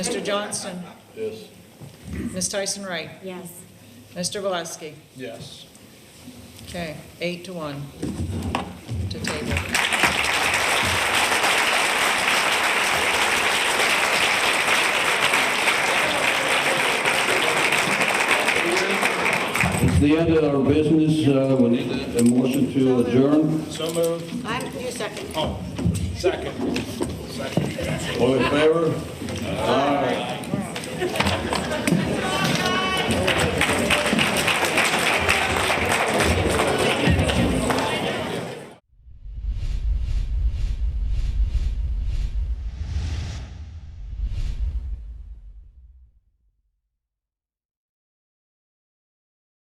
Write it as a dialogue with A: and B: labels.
A: Mr. Johnston,
B: Yes.
A: Ms. Tyson Wright,
C: Yes.
A: Mr. Valesky.
B: Yes.
A: Okay, eight to one to table.
D: It's the end of our business, Uh, we need a motion to adjourn.
B: So moved.
C: I, you second.
B: Oh, second. Second.
D: All in favor?